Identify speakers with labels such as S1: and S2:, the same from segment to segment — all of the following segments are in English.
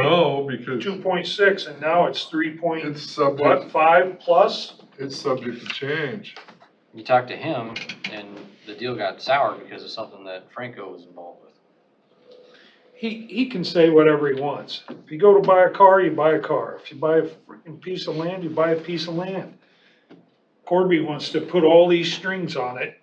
S1: No, because
S2: two point six, and now it's three point,
S1: it's
S2: what,
S1: subject,
S2: five plus?
S1: it's subject to change.
S3: You talked to him and the deal got sour because of something that Franco was involved with.
S2: He, he can say whatever he wants. If you go to buy a car, you buy a car. If you buy a freaking piece of land, you buy a piece of land. Corby wants to put all these strings on it.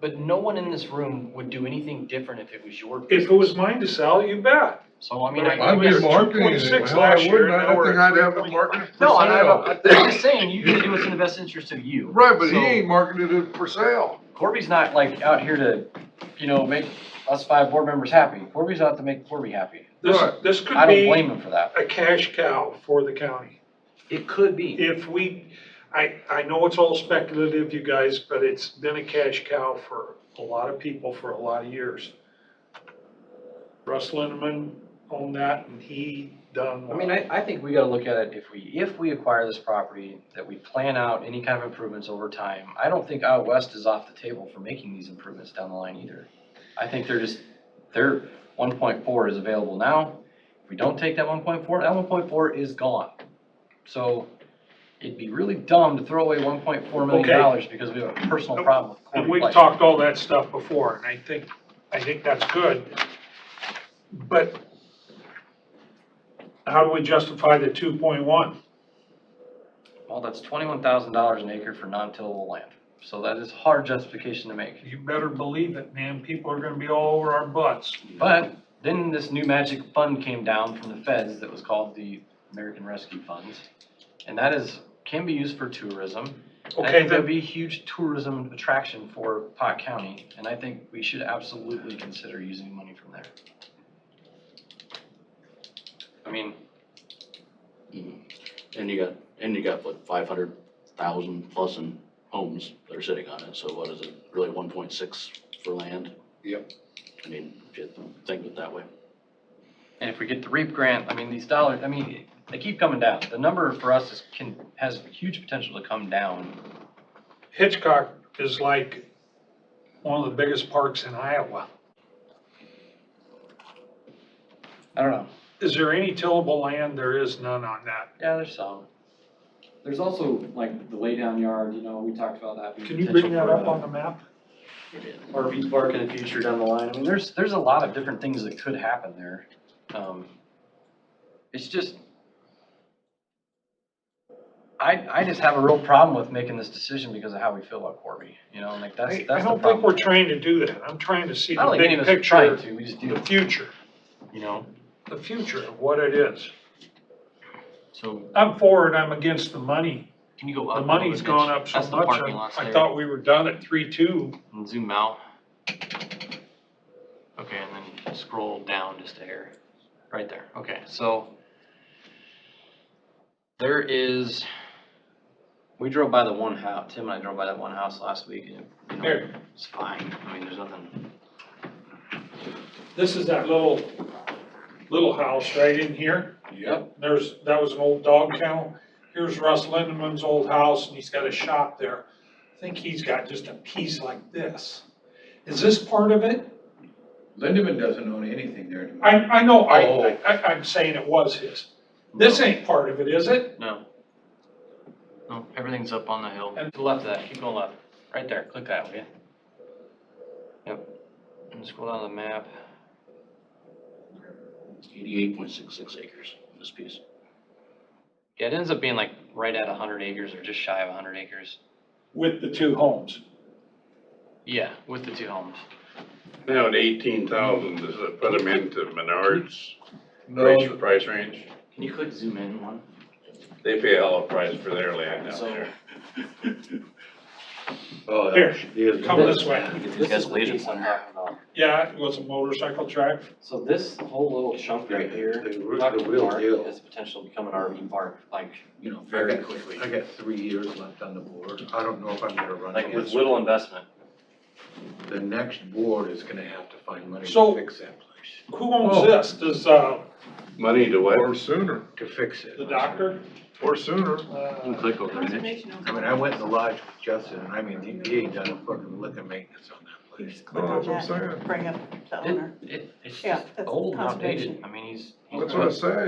S4: But no one in this room would do anything different if it was your business.
S2: If it was mine to sell, you bet.
S4: So, I mean,
S2: Right.
S4: I.
S1: I'd be
S2: was
S1: marketing
S2: 2.6
S1: it, hell, I
S2: last year,
S1: wouldn't,
S2: now
S1: I
S2: we're
S1: think
S2: at
S1: I'd have it
S2: 3.5.
S1: marketed for
S4: No, I know,
S1: sale.
S4: I'm just saying, you can do what's in the best interest of you.
S1: Right, but he
S4: So,
S1: ain't marketed it for sale.
S4: Corby's not like out here to, you know, make us five board members happy. Corby's out to make Corby happy.
S2: This,
S1: Right.
S2: this could
S4: I don't
S2: be
S4: blame him for that.
S2: a cash cow for the county.
S4: It could be.
S2: if we, I, I know it's all speculative, you guys, but it's been a cash cow for a lot of people for a lot of years. Russ Lindeman owned that and he done
S4: I mean,
S2: well.
S4: I, I think we gotta look at it, if we, if we acquire this property, that we plan out any kind of improvements over time. I don't think out west is off the table for making these improvements down the line either. I think they're just, their one point four is available now. If we don't take that one point four, that one point four is gone. So it'd be really dumb to throw away one point four million dollars because we have a personal problem with
S2: And
S4: Corey
S2: we've
S4: Place.
S2: talked all that stuff before and I think, I think that's good. But how do we justify the two point one?
S4: Well, that's twenty-one thousand dollars an acre for non-tillable land. So that is hard justification to make.
S2: You better believe it, man. People are gonna be all over our butts.
S4: But then this new magic fund came down from the feds that was called the American Rescue Funds. And that is, can be used for tourism. And I
S2: Okay,
S4: think that'd
S2: then,
S4: be a huge tourism attraction for Pot County, and I think we should absolutely consider using money from there. I mean,
S5: Mhm. And you got, and you got what, five hundred thousand plus in homes that are sitting on it, so what is it, really one point six for land?
S1: Yep.
S5: I mean, if you think of it that way.
S4: and if we get the REAP grant, I mean, these dollars, I mean, they keep coming down. The number for us is, can, has huge potential to come down.
S2: Hitchcock is like one of the biggest parks in Iowa.
S4: I don't know.
S2: Is there any tillable land? There is none on that.
S4: Yeah, there's some.
S3: There's also like the laydown yard, you know, we talked about that. being
S2: Can you
S3: potential
S2: bring that
S3: for
S2: up
S3: a
S2: on the map?
S4: RV park in the future down the line. I mean, there's, there's a lot of different things that could happen there. Um, It's just, I, I just have a real problem with making this decision because of how we feel about Corby, you know, like that's,
S2: I I
S4: that's the
S2: don't think we're
S4: problem.
S2: trying to do that. I'm trying to see
S4: I
S2: the
S4: don't think any of
S2: big
S4: us are trying
S2: picture,
S4: to, we just do,
S2: the future,
S4: you know,
S2: the future of what it is.
S4: so
S2: I'm for it, I'm against the money.
S4: can you go
S2: The
S4: up? a little
S2: money's
S4: bit,
S2: gone
S4: Mitch?
S2: up so
S4: That's the
S2: much.
S4: parking
S2: I
S4: lots
S2: I
S4: there.
S2: thought we were done at three-two.
S4: And Zoom out. Okay, and then scroll down just a hair, right there, okay, so. There is, we drove by the one house, Tim and I drove by that one house last week and, you know,
S2: Here,
S4: it's fine, I mean, there's nothing,
S2: this is that little, little house right in here.
S1: Yep.
S2: There's, that was an old dog kennel. Here's Russ Lindeman's old house and he's got a shop there. I think he's got just a piece like this. Is this part of it?
S6: Lindeman doesn't own anything there anymore.
S2: I, I know, I,
S6: Oh.
S2: I, I'm saying it was his. This ain't part of it, is it?
S4: no. No, everything's up on the hill, to the left of that, keep going left, right there, click that, okay? Yep, and scroll down the map,
S5: Eighty-eight point six six acres in this piece.
S4: yeah, it ends up being like right at hundred acres or just shy of hundred acres.
S2: With the two homes.
S4: Yeah, with the two homes.
S7: Now at eighteen thousand, does it put them into Menards
S6: No,
S7: price, price range?
S4: Can you click zoom in one?
S7: They pay a hell of a price for their land out there.
S6: oh,
S2: Here,
S6: that- he is-
S2: Come this way.
S5: You get the
S4: This is the
S5: escalator
S4: piece I'm
S5: plan.
S4: talking about.
S2: Yeah, it was a motorcycle track.
S4: So this whole little chunk right here,
S6: The
S4: we
S6: real-
S4: talked
S6: the
S4: to
S6: real
S4: Mark,
S6: deal.
S4: has potential to become an RV park, like, you know,
S6: I
S4: very quickly.
S6: got, I got three years left on the board. I don't know if I'm gonna run
S4: Like with
S6: against.
S4: little investment.
S6: The next board is gonna have to find money
S2: So-
S6: to fix that place,
S2: Who
S6: Oh.
S2: owns this? Does, uh,
S7: Money to
S1: Or
S7: what?
S1: sooner,
S6: to fix it.
S2: the doctor?
S1: or sooner.
S5: You can
S2: Uh,
S5: click over there, Mitch.
S8: Conservation owns
S6: I mean, I went in the lodge with Justin, and I mean, he, he ain't done a fucking lick of maintenance on that
S8: You
S6: place.
S8: just click on
S1: No, that's
S8: that
S1: what I'm
S8: and bring up the owner.
S4: It, it, it's
S8: Yeah,
S4: just
S8: that's
S4: old and outdated.
S8: conservation.
S4: I mean, he's. he's
S2: uh,
S1: That's what I say,